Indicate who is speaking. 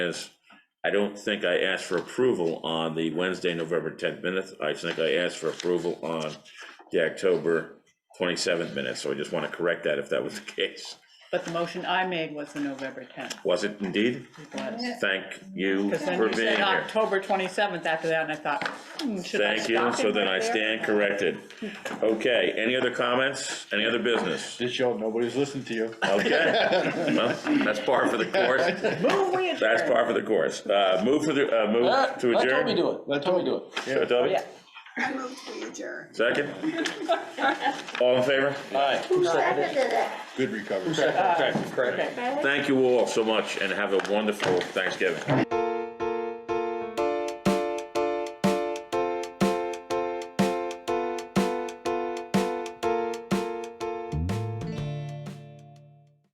Speaker 1: is, I don't think I asked for approval on the Wednesday, November 10th minutes. I think I asked for approval on the October 27th minutes, so I just want to correct that if that was the case.
Speaker 2: But the motion I made was the November 10th.
Speaker 1: Was it indeed?
Speaker 2: It was.
Speaker 1: Thank you
Speaker 2: Because then
Speaker 1: for
Speaker 2: you
Speaker 1: being
Speaker 2: said
Speaker 1: here.
Speaker 2: October 27th after that, and I thought, hmm, should I
Speaker 1: Thank you,
Speaker 2: stop
Speaker 1: so
Speaker 2: him
Speaker 1: then I
Speaker 2: right there?
Speaker 1: stand corrected. Okay, any other comments? Any other business?
Speaker 3: This show, nobody's listening to you.
Speaker 1: Okay, well, that's par for the course.
Speaker 2: Move we
Speaker 1: That's
Speaker 2: adjourn.
Speaker 1: par for the course. Uh, Move for the, uh, move to
Speaker 4: Let Toby
Speaker 1: adjourn.
Speaker 4: do it, let Toby do it.
Speaker 1: Uh, Toby?
Speaker 2: Yeah.
Speaker 5: I move to adjourn.
Speaker 1: Second? All in favor?
Speaker 4: Alright.
Speaker 5: Who seconded it?
Speaker 3: Good recovery.
Speaker 4: Correct, correct, correct.
Speaker 1: Thank you all so much and have a wonderful Thanksgiving.